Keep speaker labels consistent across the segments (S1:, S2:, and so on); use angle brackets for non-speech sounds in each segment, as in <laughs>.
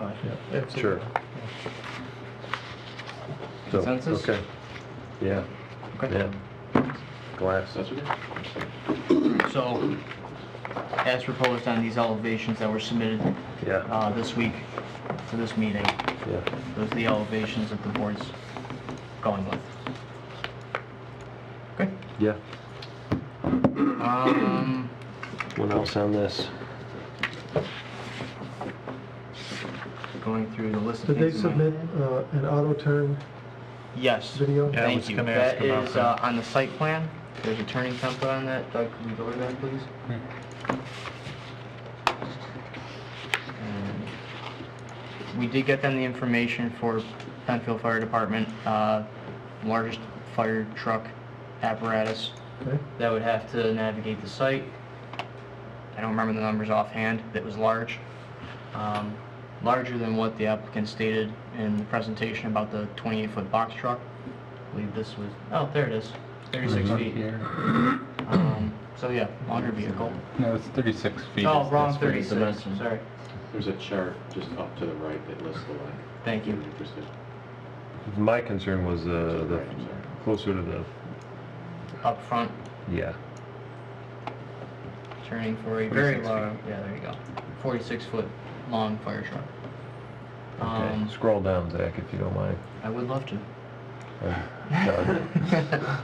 S1: yeah, absolutely.
S2: Sure. So,
S3: Consensus?
S2: Okay. Yeah, yeah. Glass.
S3: So, as proposed on these elevations that were submitted
S2: Yeah,
S3: uh, this week for this meeting,
S2: yeah.
S3: those are the elevations that the board's going with. Okay.
S2: Yeah.
S3: Um,
S2: What else on this?
S3: Going through the list of
S1: Did they
S3: things. in my-
S1: submit uh, an auto turn
S3: Yes.
S1: video?
S4: Yeah, I
S3: Thank
S4: was
S3: you.
S4: gonna ask
S3: That
S4: about
S3: is uh,
S4: that.
S3: on the site plan. There's a turning template on that. Doug, can you go to that, please? And We did get them the information for Penfield Fire Department, uh, largest fire truck apparatus
S1: Okay,
S3: that would have to navigate the site. I don't remember the numbers offhand, that was large. Um, Larger than what the applicant stated in the presentation about the 28-foot box truck. I believe this was, oh, there it is, 36 feet.
S4: Here.
S3: Um, So yeah, longer vehicle.
S4: Mm-hmm. No, it's 36 feet.
S3: Oh,
S4: is-
S3: wrong,
S4: that's where it's
S3: 36,
S4: dimensioned.
S3: sorry.
S5: There's a chart just up to the right that lists the line.
S3: Thank
S5: If you're
S3: you.
S5: interested.
S2: My concern was uh, the,
S5: Right, I'm sorry.
S2: closer to the,
S3: Up front,
S2: yeah.
S3: turning for a very
S4: 46
S3: long, yeah, there you go. 46-foot long fire truck.
S2: Okay,
S3: Um,
S2: scroll down, Zach, if you don't mind.
S3: I would love to. <laughs>
S2: I'm done.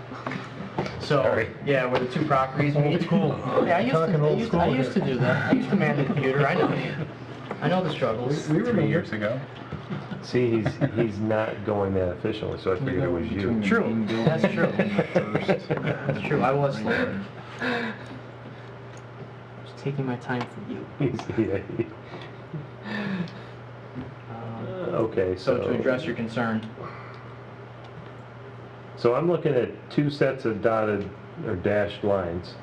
S3: So,
S2: Sorry.
S3: yeah, where the two properties meet.
S1: Old school.
S3: Yeah, I used
S1: Talking
S3: to, I
S1: old
S3: used, I
S1: school
S3: used to
S1: here.
S3: do that. I used to man the computer, I know. I know the struggles.
S1: We
S4: Three
S1: remember.
S4: years ago.
S2: See, he's, he's not going that efficiently, so I figured it was you.
S3: True, that's true. That's true, I was slow. Just taking my time for you.
S2: <laughs> He's- yeah, he-
S3: Um,
S2: Okay,
S3: So to
S2: so,
S3: address your concern,
S2: so I'm looking at two sets of dotted or dashed lines.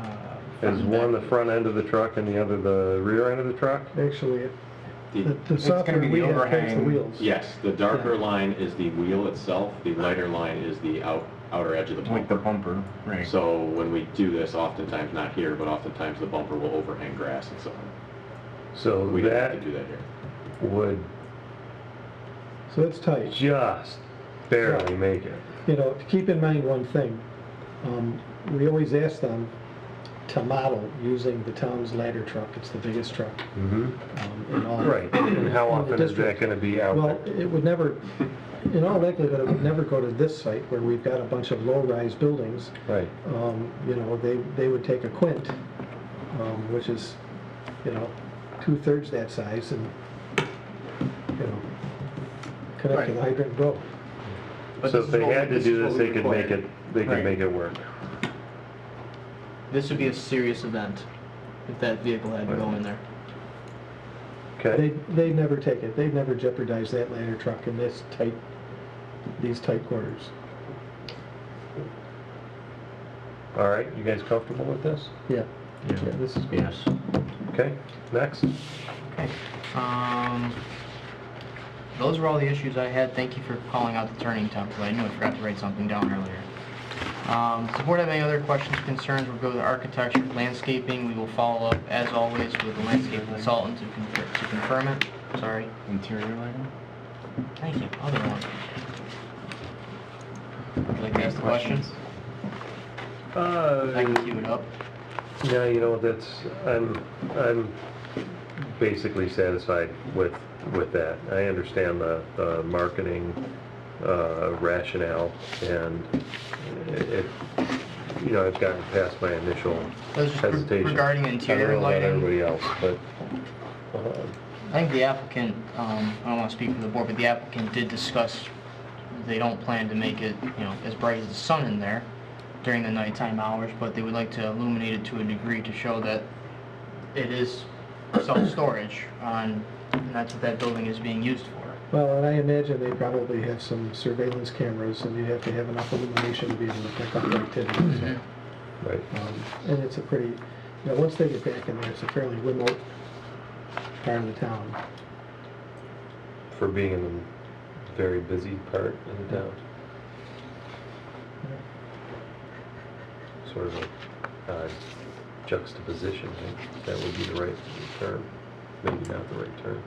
S3: uh,
S2: Is
S3: from
S2: one
S3: that-
S2: the front end of the truck and the other the rear end of the truck?
S1: actually, it- the
S5: The-
S1: the
S4: gonna
S1: software
S4: be the
S1: we have takes the
S4: overhang.
S1: wheels.
S5: Yes, the darker line is the wheel itself, the lighter line is the out, outer edge of the bumper.
S4: bumper, right.
S5: So when we do this, oftentimes, not here, but oftentimes the bumper will overhang grass and so on.
S2: So
S5: We don't have
S2: that
S5: to do that here.
S2: would
S1: So it's tight.
S2: just barely make it.
S1: you know, keep in mind one thing. Um, We always ask them to model using the town's ladder truck. It's the biggest truck
S2: Mm-hmm.
S1: um, in all.
S2: Right, and how
S1: in the
S2: often is that
S1: district.
S2: gonna be out
S1: Well,
S2: there?
S1: it would never, in all likelihood, it would never go to this site where we've got a bunch of low-rise buildings.
S2: Right,
S1: Um, You know, they, they would take a quint, um, which is, you know, two-thirds that size and, you know, connect to the hydrant and go.
S3: but
S2: so
S3: this
S2: if
S3: is
S2: they
S3: what we-
S2: had to
S3: this
S2: do
S3: is
S2: this,
S3: what
S2: they
S3: we
S2: could make
S3: require.
S2: it, they could
S3: Right.
S2: make it work.
S3: This would be a serious event if that vehicle had to go in there.
S2: Okay,
S1: They'd, they'd never take it, they'd never jeopardize that ladder truck in this tight, these tight quarters.
S2: all right, you guys comfortable with this?
S1: Yeah. Yeah, this is good.
S3: Yes.
S2: Okay, next?
S3: Okay. Um, those were all the issues I had. Thank you for calling out the turning template. I knew I forgot to write something down earlier. Um, does the board have any other questions, concerns? We'll go to architecture, landscaping. We will follow up, as always, with the landscape consultant to confirm, to confirm it. Sorry.
S4: Interior lighting?
S3: Thank you. Other one. Would you like to ask the question? I can
S2: Uh,
S3: queue it up.
S2: yeah, you know, that's, I'm, I'm basically satisfied with, with that. I understand the, the marketing uh, rationale and it, it- you know, I've gotten past my initial
S3: That was just re-
S2: hesitation.
S3: regarding interior
S2: I don't
S3: lighting.
S2: know about everybody else, but, uh,
S3: I think the applicant, um, I don't want to speak for the board, but the applicant did discuss they don't plan to make it, you know, as bright as the sun in there during the nighttime hours, but they would like to illuminate it to a degree to show that it is self-storage on, and that's what that building is being used for.
S1: Well, and I imagine they probably have some surveillance cameras, and you have to have enough illumination to be able to pick up activities.
S2: right.
S1: Um, And it's a pretty, you know, once they get back in there, it's a fairly remote part of the town.
S2: for being in the very busy part of the town. Sort of a uh, juxtaposition, I think that would be the right term, maybe not the right term.